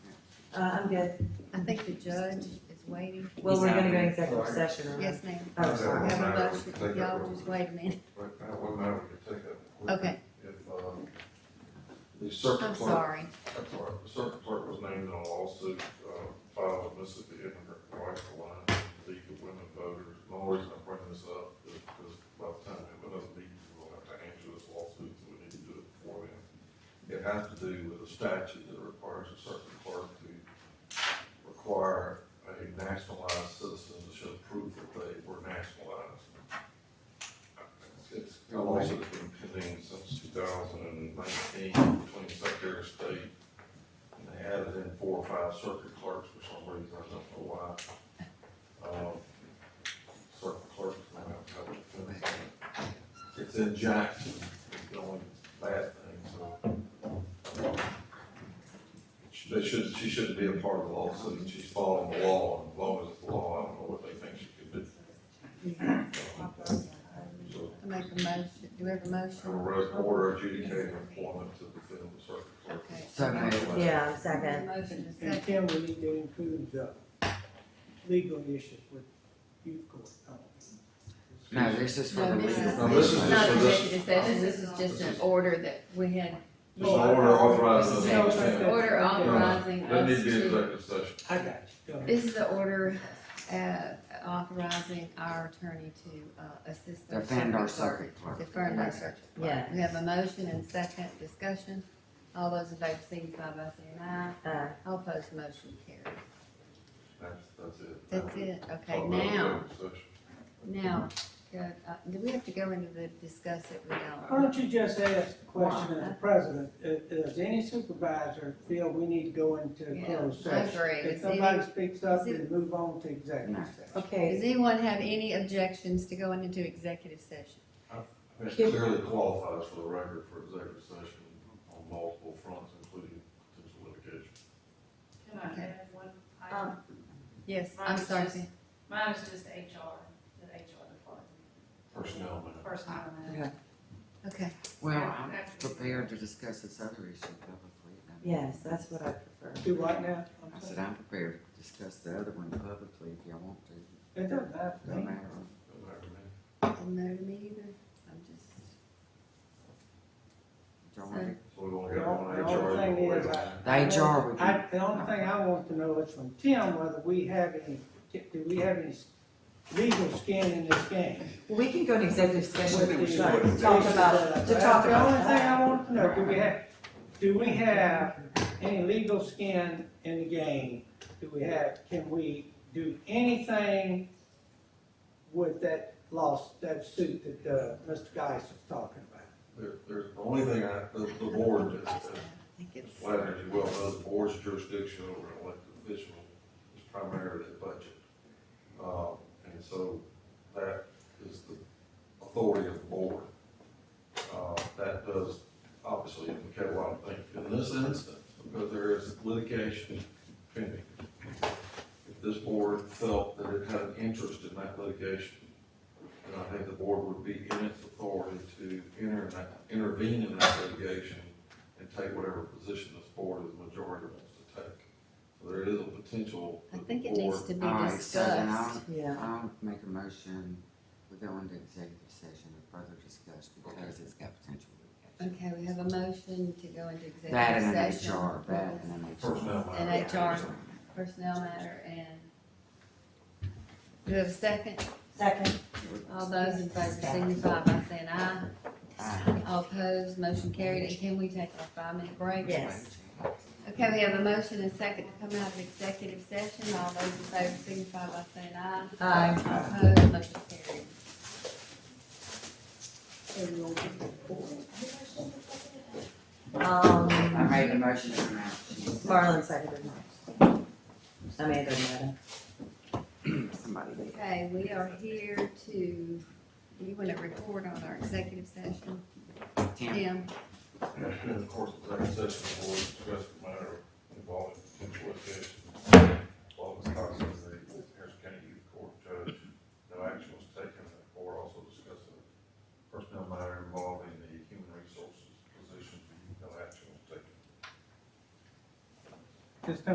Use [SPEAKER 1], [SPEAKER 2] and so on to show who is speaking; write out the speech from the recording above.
[SPEAKER 1] Uh, I'm good.
[SPEAKER 2] I think the judge is waiting.
[SPEAKER 1] Well,
[SPEAKER 3] He's
[SPEAKER 1] we're
[SPEAKER 3] out
[SPEAKER 1] gonna go
[SPEAKER 3] there.
[SPEAKER 1] executive
[SPEAKER 4] Sorry.
[SPEAKER 1] session, right?
[SPEAKER 2] Yes, ma'am.
[SPEAKER 1] Oh, sorry.
[SPEAKER 2] We have a motion. Y'all just wait a minute.
[SPEAKER 4] What, what matter we could take up?
[SPEAKER 2] Okay,
[SPEAKER 4] If, uh, the circuit
[SPEAKER 2] I'm
[SPEAKER 4] clerk,
[SPEAKER 2] sorry.
[SPEAKER 4] that's all right, the circuit clerk was named in a lawsuit, uh, filed with Mississippi Immigrant Rights Alliance, League of Women Voters. The only reason I'm bringing this up is because by the time we have another meeting, we'll have to answer this lawsuit, so we need to do it before then. It has to do with a statute that requires a circuit clerk to require a nationalized citizen to show proof that they were nationalized. It's a lawsuit that's been pending since two thousand and nineteen between Secretary of State and they added in four or five circuit clerks for some reason, I don't know why. Um, Circuit clerks might have to have a defense on it. It's in Jackson, it's the only bad thing, so. They should, she shouldn't be a part of the lawsuit, and she's following the law, and as long as it's the law, I don't know what they think she could do. So,
[SPEAKER 2] I make a motion. Do we have a
[SPEAKER 4] I will
[SPEAKER 2] motion?
[SPEAKER 4] res- order adjudicating employment to the field of circuit clerk.
[SPEAKER 2] Okay.
[SPEAKER 3] So moved.
[SPEAKER 1] Yeah, second.
[SPEAKER 2] Motion is
[SPEAKER 5] And
[SPEAKER 2] second.
[SPEAKER 5] Tim, we need to include the legal issues with youth court.
[SPEAKER 3] No, this is for
[SPEAKER 2] No,
[SPEAKER 3] the
[SPEAKER 2] this
[SPEAKER 3] legal.
[SPEAKER 2] is,
[SPEAKER 4] No, this
[SPEAKER 2] this
[SPEAKER 4] is
[SPEAKER 2] is
[SPEAKER 4] just
[SPEAKER 2] not
[SPEAKER 4] for this-
[SPEAKER 2] executive session. This is just an order that we had.
[SPEAKER 4] This is an order authorizing.
[SPEAKER 2] This is
[SPEAKER 4] the-
[SPEAKER 2] an
[SPEAKER 5] Okay.
[SPEAKER 2] Order authorizing
[SPEAKER 4] There needs
[SPEAKER 2] us
[SPEAKER 4] to be an
[SPEAKER 2] to,
[SPEAKER 4] executive session.
[SPEAKER 5] I got you. Go ahead.
[SPEAKER 2] this is the order, uh, authorizing our attorney to, uh, assist. the
[SPEAKER 3] Defend our
[SPEAKER 2] clerk.
[SPEAKER 3] circuit clerk.
[SPEAKER 2] Defend our circuit.
[SPEAKER 1] Yeah.
[SPEAKER 2] We have a motion and second discussion. All those in favor signify by saying aye.
[SPEAKER 1] Uh,
[SPEAKER 2] All opposed, motion carries.
[SPEAKER 4] That's, that's it.
[SPEAKER 2] That's it. Okay,
[SPEAKER 4] Talk about
[SPEAKER 2] now,
[SPEAKER 4] executive session.
[SPEAKER 2] now, go- uh, do we have to go into the discuss it with
[SPEAKER 5] Why
[SPEAKER 2] y'all?
[SPEAKER 5] don't you just ask the question of the president, if, does any supervisor feel we need to go into
[SPEAKER 2] Yeah,
[SPEAKER 5] closed
[SPEAKER 2] I
[SPEAKER 5] session?
[SPEAKER 2] agree.
[SPEAKER 5] If
[SPEAKER 2] Is any-
[SPEAKER 5] somebody speaks up,
[SPEAKER 2] is it-
[SPEAKER 5] then move on to executive session.
[SPEAKER 2] Does
[SPEAKER 1] okay,
[SPEAKER 2] anyone have any objections to going into executive session?
[SPEAKER 4] I think It clearly qualifies for the record for executive session on multiple fronts, including potential litigation.
[SPEAKER 6] Can I
[SPEAKER 2] Okay.
[SPEAKER 6] add one item?
[SPEAKER 2] Yes, I'm
[SPEAKER 6] Mine is
[SPEAKER 2] sorry.
[SPEAKER 6] just-
[SPEAKER 2] Sam.
[SPEAKER 6] Mine is just HR, the HR department,
[SPEAKER 4] Personnel matter.
[SPEAKER 6] first time I
[SPEAKER 3] Yeah.
[SPEAKER 2] Okay,
[SPEAKER 3] Well, I'm prepared to discuss this other issue publicly.
[SPEAKER 1] yes, that's what I prefer.
[SPEAKER 5] Do what now?
[SPEAKER 3] I said, I'm prepared to discuss the other one publicly if y'all want to,
[SPEAKER 5] It doesn't matter to
[SPEAKER 3] no
[SPEAKER 5] me.
[SPEAKER 3] matter.
[SPEAKER 4] Doesn't matter to me.
[SPEAKER 2] doesn't matter to me either. I'm just,
[SPEAKER 3] Y'all want to-
[SPEAKER 4] So we only got one
[SPEAKER 5] The only- the
[SPEAKER 4] HR.
[SPEAKER 5] only thing
[SPEAKER 4] employee.
[SPEAKER 5] is I-
[SPEAKER 3] The HR would
[SPEAKER 5] I,
[SPEAKER 3] be,
[SPEAKER 5] the only thing I want to know is from Tim whether we have any, do we have any legal skin in this game?
[SPEAKER 1] We can go to executive session
[SPEAKER 5] With the-
[SPEAKER 1] to talk about, to talk
[SPEAKER 5] The only
[SPEAKER 1] about
[SPEAKER 5] thing
[SPEAKER 1] that.
[SPEAKER 5] I want to know, do we have, do we have any legal skin in the game? Do we have, can we do anything with that loss, that suit that, uh, Mr. Geis was talking about?
[SPEAKER 4] There, there's, the only thing I, the, the board, is-
[SPEAKER 2] I
[SPEAKER 4] is
[SPEAKER 2] think it's,
[SPEAKER 4] Wagner, as you well know, the board's jurisdiction over an elected official is primarily the budget. Uh, and so that is the authority of the board. Uh, that does obviously indicate a lot of things in this instance, because there is litigation pending. If this board felt that it had an interest in that litigation, then I think the board would be in its authority to enter, in that- intervene in that litigation and take whatever position this board as majority wants to take. So there is a potential
[SPEAKER 2] I
[SPEAKER 4] that the
[SPEAKER 2] think it needs
[SPEAKER 4] board,
[SPEAKER 2] to be
[SPEAKER 3] all right, so then
[SPEAKER 2] discussed.
[SPEAKER 3] I'll,
[SPEAKER 1] Yeah,
[SPEAKER 3] I'll make a motion, we go into executive session and further discuss because it's got potential litigation.
[SPEAKER 2] Okay, we have a motion to go into executive session.
[SPEAKER 3] That and an HR, that and an HR.
[SPEAKER 4] personnel matter.
[SPEAKER 2] And HR. Personnel matter and, do we have a second?
[SPEAKER 1] second.
[SPEAKER 2] All those in favor signify by saying aye.
[SPEAKER 3] Aye.
[SPEAKER 2] All opposed, motion carried. And can we take a five-minute break?
[SPEAKER 1] Yes.
[SPEAKER 2] Okay, we have a motion and second to come out of executive session. All those in favor signify by saying aye.
[SPEAKER 1] Aye.
[SPEAKER 2] All opposed, motion carried.
[SPEAKER 3] I
[SPEAKER 1] Um,
[SPEAKER 3] made a motion to come out. She was-
[SPEAKER 1] Marlon seconded mine. I mean, it doesn't matter.
[SPEAKER 3] Somebody did.
[SPEAKER 2] Okay, we are here to, do you want to report on our executive session?
[SPEAKER 3] Tim,
[SPEAKER 2] Tim,
[SPEAKER 4] And of course, the executive session will discuss the matter involving potential litigation. While Ms. Thompson is the Harrison County Youth Court Judge, no action was taken, the board also discussed a personnel matter involving the human resources position, no action was taken.
[SPEAKER 5] Just